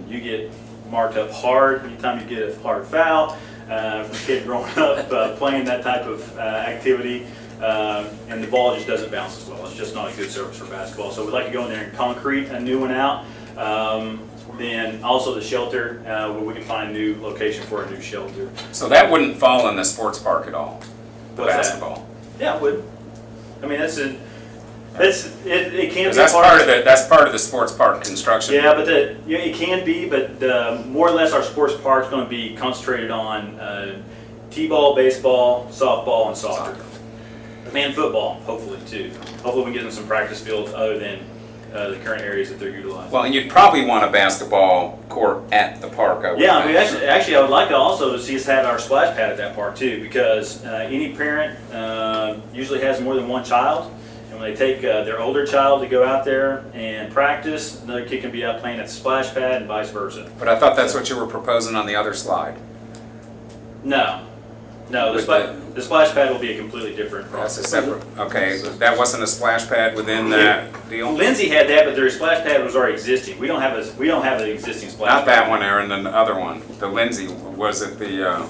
get marked up hard anytime you get a hard foul. Uh, from a kid growing up uh, playing that type of uh, activity, um, and the ball just doesn't bounce as well. It's just not a good surface for basketball. So we'd like to go in there and concrete a new one out. Um, then also the shelter, uh, where we can find a new location for a new shelter. So that wouldn't fall in the sports park at all, What's that? basketball. Yeah, it would. I mean, that's a, that's, it, it can 'Cause be. that's part of the, that's part of the sports park construction. Yeah, but the, yeah, it can be, but uh, more or less our sports park's gonna be concentrated on uh, T-ball, baseball, softball, and soccer. And football, hopefully, too. Hopefully we can get them some practice fields other than uh, the current areas that they're utilizing. Well, and you'd probably want a basketball court at the park, I would Yeah, I mean, think. actually, actually, I would like to also see us have our splash pad at that park too, because uh, any parent uh, usually has more than one child. And when they take uh, their older child to go out there and practice, another kid can be out playing at the splash pad and vice versa. But I thought that's what you were proposing on the other slide. No, no, the With splash, the splash pad will be a completely different That's a process. separate, okay, that wasn't a splash pad within that deal? Lindsay had that, but their splash pad was already existing. We don't have a, we don't have an existing splash Not pad. that one, Aaron, the other one, the Lindsay, was it the uh,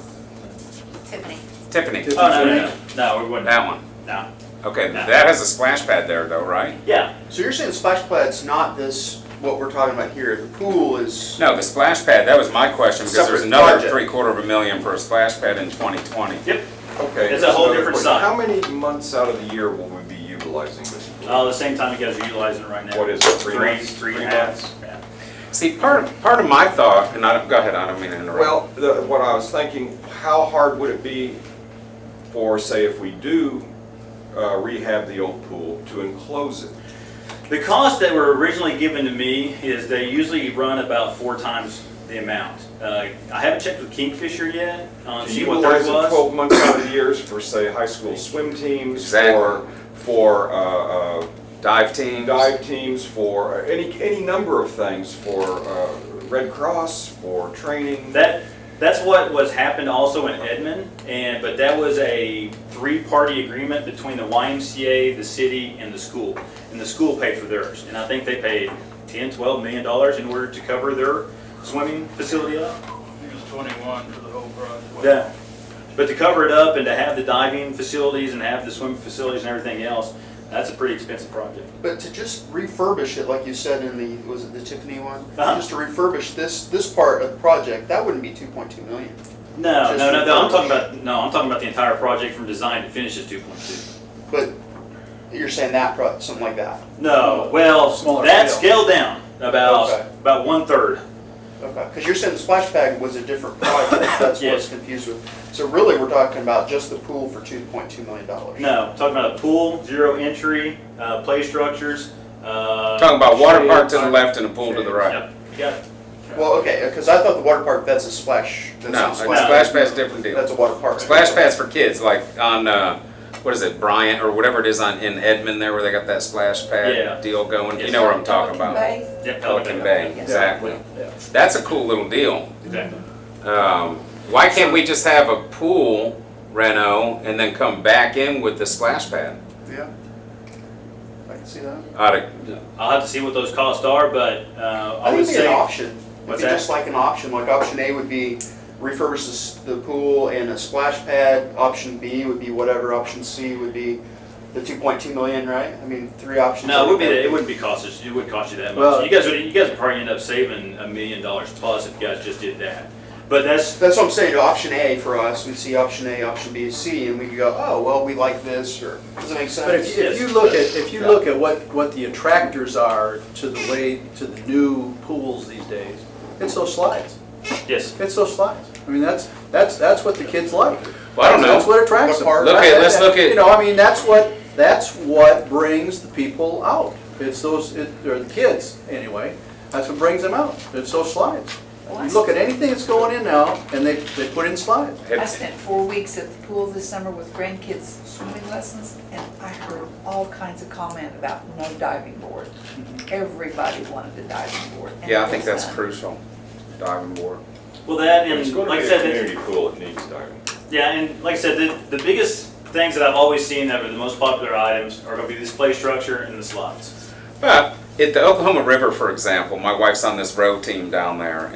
Tiffany. Tiffany? Oh, no, no, no, no, we wouldn't, That one. no. Okay, that has a splash pad there though, right? Yeah, So you're saying the splash pad's not this, what we're talking about here, the pool is, No, the splash pad, that was my question, because there's Separate another project. three quarter of a million for a splash pad in 2020. yep, Okay. It's a whole another different question. side. How many months out of the year will we be utilizing this? uh, the same time you guys are utilizing it right now. What is it, three months? Three, three and a Three half, months? yeah. See, part, part of my thought, and I don't, go ahead, I don't mean to interrupt. Well, the, what I was thinking, how hard would it be for, say, if we do uh, rehab the old pool, to enclose it? The costs that were originally given to me is they usually run about four times the amount. Uh, I haven't checked with Kingfisher yet, um, To see what theirs Utilize it was. twelve months out of the years for, say, high school swim teams, Exactly. for, for, uh, uh, Dive teams. dive teams, for uh, any, any number of things, for uh, Red Cross, for training. That, that's what was happened also in Edmond, and, but that was a three-party agreement between the YMCA, the city, and the school. And the school paid for theirs, and I think they paid ten, twelve million dollars in order to cover their swimming facility up. It was twenty-one for the whole project. Yeah, but to cover it up and to have the diving facilities and have the swimming facilities and everything else, that's a pretty expensive project. but to just refurbish it, like you said in the, was it the Tiffany one? Uh-huh. Just to refurbish this, this part of the project, that wouldn't be two point two million. No, Just no, no, no, I'm talking refurbish. about, no, I'm talking about the entire project from design to finish is two point two. But you're saying that pro, something like that, No, well, Smaller that scale. scaled down Okay. about, about one-third. okay, cause you're saying the splash pad was a different project, that's what Yes. it's confused with. So really, we're talking about just the pool for two point two million dollars. No, talking about a pool, zero entry, uh, play structures, uh. Talking about water shade, park to the park- left and a pool to the right. Yep, you got it. Well, okay, cause I thought the water park, that's a splash, No, a that's a splash. splash pad's a different deal. That's a water park. Splash pads for kids, like on, uh, what is it, Bryant, or whatever it is on, in Edmond there, where they got that splash Yeah. pad deal going, you Yes. know what I'm talking about? Bay. Yep, Pelican Bay, exactly. Yeah, That's a cool little deal. Exactly. Um, why can't we just have a pool reno and then come back in with the splash pad? Yeah. I can see that. Oughta- I'll have to see what those costs are, but, uh, I I would think it'd be say. an option. It'd What's be that? just like an option, like option A would be refurbish the s- the pool and a splash pad. Option B would be whatever, option C would be the two point two million, right? I mean, three options. No, it would be, it wouldn't be cost, us- it wouldn't cost you that Well- much. You guys would, you guys would probably end up saving a million dollars plus if you guys just did that. But that's, That's what I'm saying, option A for us, we see option A, option B, C, and we could go, oh, well, we like this, or, does that make sense? But if you, if you look at, if you look at what, what the attractors are to the way, to the new pools these days, it's those slides. yes, It's those slides. I mean, that's, that's, that's what the kids like. Well, I don't know. That's what attracts them. Look at- let's look at- You know, I mean, that's what, that's what brings the people out. It's those, it, or the kids, anyway, that's what brings them out. It's those slides. You look at anything that's going in now, and they, they put in slides. I spent four weeks at the pool this summer with grandkids swimming lessons, and I heard all kinds of comment about no diving board. Everybody wanted a diving board. and Mm-hmm. Yeah, I it think was that's none. crucial, diving board. well, that It's and, going like I to be said, a that's- community pool, it needs diving. Yeah, and like I said, the, the biggest things that I've always seen that are the most popular items are gonna be this play structure and the slides. But at the Oklahoma River, for example, my wife's on this row team down there,